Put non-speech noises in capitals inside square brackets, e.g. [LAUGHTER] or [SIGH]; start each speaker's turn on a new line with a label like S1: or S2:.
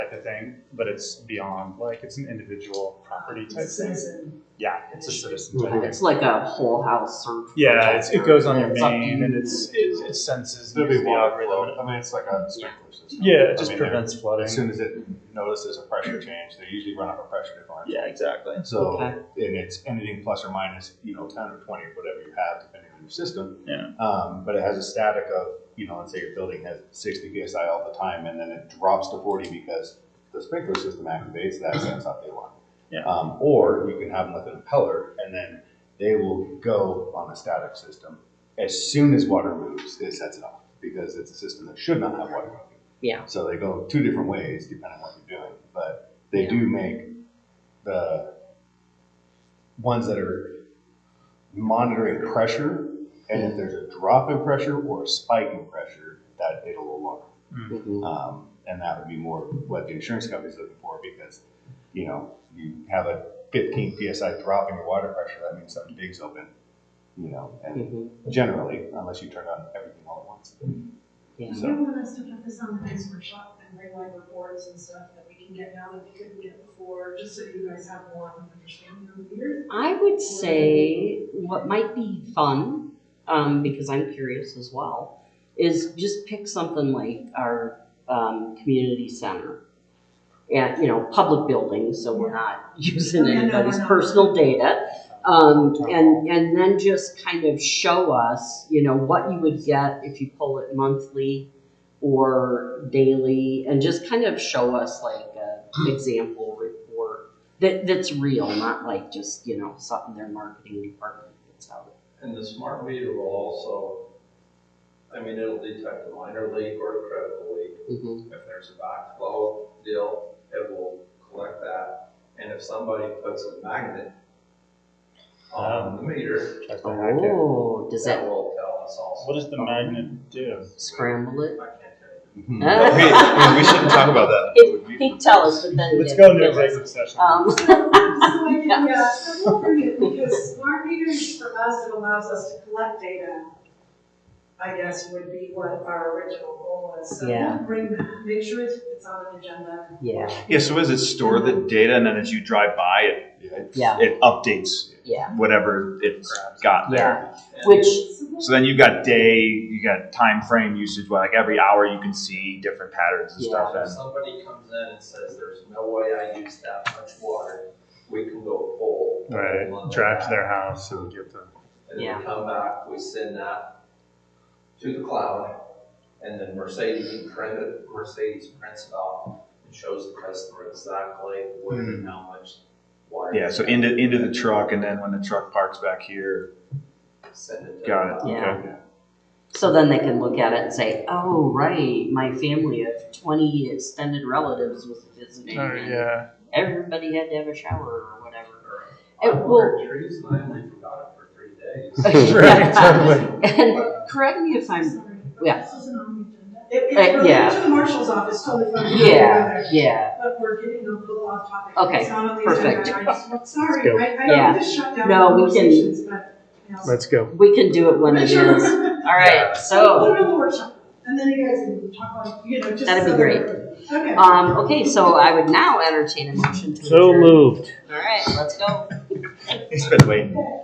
S1: type of thing, but it's beyond, like, it's an individual property type thing. Yeah, it's a citizen type
S2: Mm-hmm.
S1: thing.
S3: It's like a whole house search.
S1: Yeah, it's, it goes on your
S3: It's up to
S1: main and
S3: you.
S1: it's, it, it senses and
S2: There'll be
S1: uses the
S2: water flow.
S1: algorithm.
S2: I mean, it's like a sprinkler system.
S1: Yeah,
S2: I
S1: it just
S2: mean, they're-
S1: prevents flooding.
S2: As soon as it notices a pressure change, they usually run up a pressure difference.
S1: Yeah, exactly.
S2: So,
S3: Okay.
S2: and it's anything plus or minus, you know, ten or twenty, whatever you have, depending on your system.
S1: Yeah.
S2: Um, but it has a static of, you know, let's say your building has sixty psi all the time, and then it drops to forty because the sprinkler system activates that, sends out the alarm.
S1: Yeah.
S2: Um, or you can have them with an impeller, and then they will go on a static system. As soon as water moves, it sets it off, because it's a system that should not have water moving.
S3: Yeah.
S2: So they go two different ways depending on what you're doing, but they
S3: Yeah.
S2: do make the ones that are monitoring pressure, and if there's a drop in pressure or a spike in pressure, that it'll alarm.
S3: Mhm.
S2: Um, and that would be more what the insurance company's looking for because, you know, you have a 15 psi drop in your water pressure, that means something big's open, you know, and
S3: Mhm.
S2: generally, unless you turn on everything all at once.
S3: Yeah.
S2: So- [LAUGHS]
S4: [LAUGHS] You want us to focus on the next workshop and bring like reports and stuff that we can get now that we couldn't get before, just so you guys have one understanding of
S3: [LAUGHS]
S4: the year.
S3: I would say what might be fun, um, because I'm curious as well, is just pick something like our um, community center. And, you know, public buildings, so we're not [LAUGHS] using
S4: Yeah, no, we're
S3: anybody's
S4: not.
S3: personal data. Um, and, and then just kind of show us, you know, what you would get if you pull it monthly or daily, and just kind of show us like a example report that that's real, not like just you know something their marketing department puts out.
S5: And the smart meter will also, I mean, it'll detect a minor leak or a critical leak.
S3: Mm-hmm.
S5: If there's a backflow deal, it will collect that. And if somebody puts a magnet on the meter,
S1: Tries to hack it.
S3: Oh, does
S5: that
S3: that
S5: will tell us also.
S1: What does the magnet do?
S3: scramble
S5: I
S3: it?
S5: can't tell you.
S2: We- we shouldn't talk about that.
S3: He'd tell us, but then
S1: Let's go into executive session.
S3: Um,
S4: So I can- Yeah, so we'll bring it, because smart meters from us, it allows us to collect data, I guess would be what our original goal was. So
S3: Yeah.
S4: we'll bring that, make sure it's it's on an agenda.
S3: yeah,
S6: Yeah, so does it store the data and then as you drive by, it,
S3: yeah,
S6: it updates
S3: yeah,
S6: whatever it's got there?
S3: yeah.
S5: And
S3: Which
S6: So then you've got day, you got time frame usage, like every hour you can see different patterns and stuff.
S5: If
S6: And
S5: somebody comes in and says, there's no way I used that much water, we can go pull.
S1: Right, drive to their house and get the.
S5: And then
S3: Yeah.
S5: we come back, we send that to the cloud, and then Mercedes print it, Mercedes prints it off and shows the customer exactly where and how much water.
S6: Hmm. yeah, so into into the truck, and then when the truck parks back here,
S5: Send it to.
S6: got it.
S3: Yeah.
S6: Okay.
S3: So then they can look at it and say, "Oh, right, my family of twenty extended relatives was visiting,
S1: Oh,
S3: and
S1: yeah.
S3: everybody had to have a shower or whatever." Uh,
S5: I
S3: It will- [LAUGHS]
S5: ordered trees and I only forgot it for three days.
S1: Right, [LAUGHS] totally.
S3: And correct me if I'm
S4: Sorry.
S3: Um, yeah.
S4: This isn't on the agenda. It,
S3: Uh,
S4: it's related
S3: yeah.
S4: to the marshal's office, totally fine.
S3: yeah, yeah.
S4: But we're getting a little off topic.
S3: Okay,
S4: It's not on the
S3: perfect.
S4: agenda. I just-
S1: Let's go.
S4: Sorry, I, I
S3: Yeah.
S4: don't just shut down
S3: No, we can-
S4: conversations, but. you know,
S1: Let's go.
S3: We can do it when it is. All right, so.
S4: Put it on the workshop, and then you guys can talk about, you know, just.
S3: That'd be
S4: so-
S3: great.
S4: Okay.
S3: Um, okay, so I would now entertain a motion to adjourn.
S7: So moved.
S3: All right, let's go.
S6: It's been waiting.